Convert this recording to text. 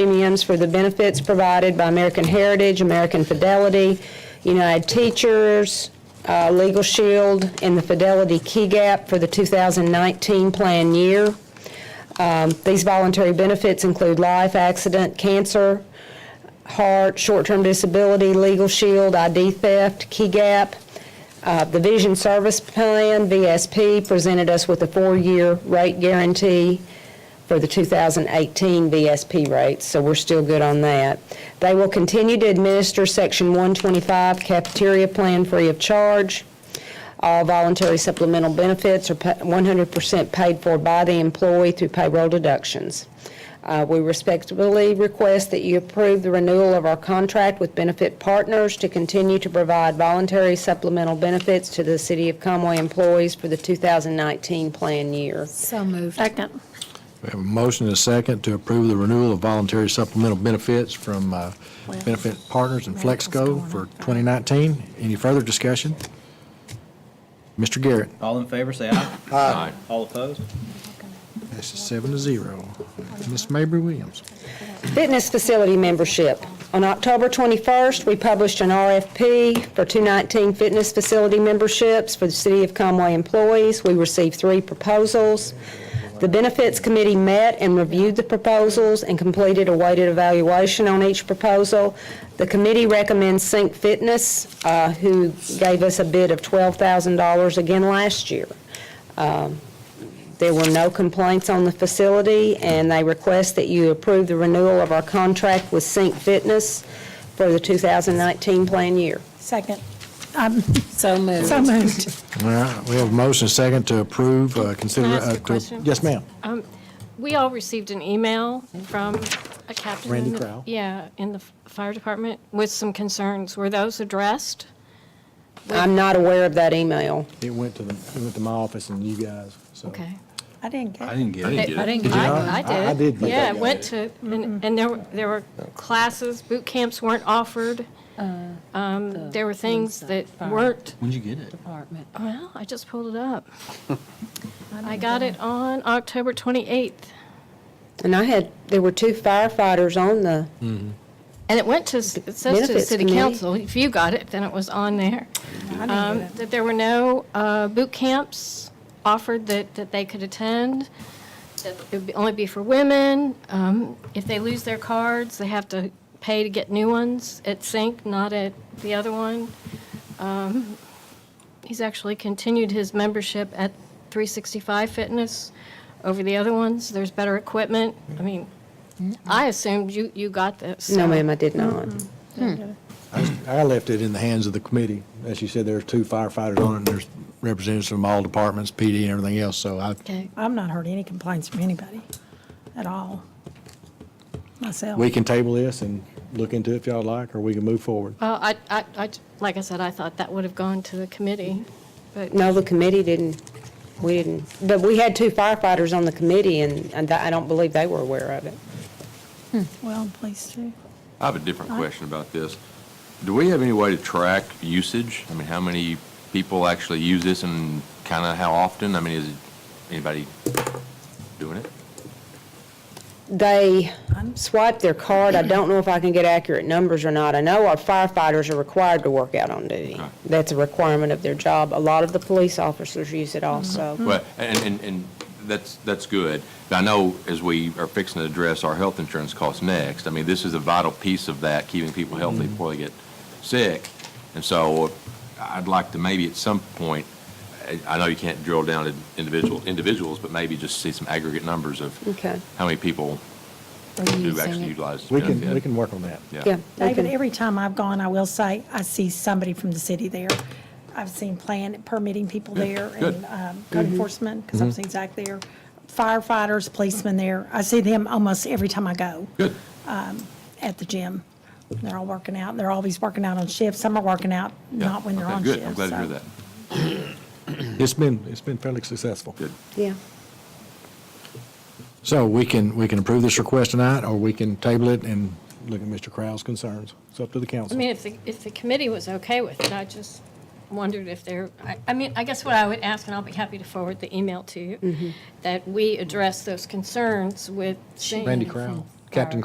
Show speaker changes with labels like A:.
A: premiums for the benefits provided by American Heritage, American Fidelity, United Teachers, uh, Legal Shield, and the Fidelity Key Gap for the 2019 plan year. Um, These voluntary benefits include life, accident, cancer, heart, short-term disability, Legal Shield, ID theft, Key Gap. Uh, The Vision Service Plan, VSP, presented us with a four-year rate guarantee for the 2018 VSP rates, so we're still good on that. They will continue to administer Section 125 cafeteria plan free of charge. All voluntary supplemental benefits are pa- 100% paid for by the employee through payroll deductions. Uh, We respectfully request that you approve the renewal of our contract with Benefit Partners to continue to provide voluntary supplemental benefits to the City of Conway employees for the 2019 plan year.
B: So moved.
C: Second.
D: We have a motion and a second to approve the renewal of voluntary supplemental benefits from uh, Benefit Partners and Flexco for 2019. Any further discussion? Mr. Garrett,
E: All in favor, say aye. Aye. All opposed?
D: this is seven to zero. Ms. Mabry Williams.
A: Fitness facility membership. On October 21st, we published an RFP for 219 fitness facility memberships for the City of Conway employees. We received three proposals. The Benefits Committee met and reviewed the proposals and completed a weighted evaluation on each proposal. The committee recommends Sync Fitness, uh, who gave us a bid of $12,000 again last year. There were no complaints on the facility, and they request that you approve the renewal of our contract with Sync Fitness for the 2019 plan year.
C: Second.
B: So moved.
C: So moved.
D: All right, we have a motion and a second to approve, uh, consider.
F: Can I ask a
D: uh, to-
F: question?
D: Yes, ma'am.
F: We all received an email from a captain. in
D: Randy
F: the-
D: Crowell.
F: Yeah, in the f- fire department with some concerns. Were those addressed?
A: I'm not aware of that email.
D: It went to the, it went to my office and you guys, so.
F: Okay.
C: I didn't get it.
G: didn't get it.
B: I didn't
D: Did you
F: I-
D: not?
F: I did.
D: I did.
F: Yeah, I went to, and and there, were- there were classes, boot camps weren't offered. Um, There were things that weren't,
G: When'd you get it?
B: Department.
F: well, I just pulled it up. I got it on October 28th,
A: And I had, there were two firefighters on the,
F: and it went to, s- it says to the
A: Benefits
F: city
A: committee.
F: council. If you got it, then it was on there. um, that there were no uh, boot camps offered that, that they could attend, that it would be- only be for women. Um, If they lose their cards, they have to pay to get new ones at Sync, not at the other one. Um, He's actually continued his membership at 365 Fitness over the other ones. There's better equipment. I mean, I assumed you, you got this.
A: Mm-hmm. no ma'am, I did not. Hmm.
D: I left it in the hands of the committee. As you said, there's two firefighters on it, and there's representatives from all departments, PD and everything else, so I,
F: Okay.
C: I've not heard any complaints from anybody at all, myself.
D: we can table this and look into it if y'all like, or we can move forward.
F: Well, I, I, I, like I said, I thought that would have gone to the committee, but.
A: No, the committee didn't, we didn't, but we had two firefighters on the committee, and and I don't believe they were aware of it.
C: Well, please do.
G: I have a different question about this. Do we have any way to track usage? I mean, how many people actually use this and kind of how often? I mean, is anybody doing it?
A: They swipe their card. I don't know if I can get accurate numbers or not. I know our firefighters are required to work out on duty.
G: Right.
A: That's a requirement of their job. A lot of the police officers use it also.
G: Well, and, and, and that's, that's good. But I know as we are fixing to address our health insurance costs next, I mean, this is a vital piece of that, keeping people healthy before they get sick. And so I'd like to maybe at some point, I- I know you can't drill down to individual, individuals, but maybe just see some aggregate numbers of
A: Okay.
G: how many people do actually utilize this
D: We can,
G: benefit.
D: we can work on that.
A: Yeah. they
C: David,
A: can-
C: every time I've gone, I will say, I see somebody from the city there. I've seen plan, permitting people there
G: good. Mhm.
C: and um, code enforcement, because I've seen Zach there, firefighters, policemen there. I see them almost every time I go. um,
G: Good.
C: at the gym. They're all working out. They're always working out on shifts. Some are working out
G: Yeah.
C: not when they're
G: Okay,
C: on shift.
G: Good, I'm glad to hear
C: so.
G: that.
D: It's been, it's been fairly successful.
G: Good.
A: Yeah.
D: So we can, we can approve this request tonight, or we can table it and look at Mr. Crowell's concerns. It's up to the
F: I
D: council.
F: mean, if the, if the committee was okay with it, I just wondered if there, I, I mean, I guess what I would ask, and I'll be happy to forward the email to you, that we address those concerns with Shane.
D: Randy Crowell, Captain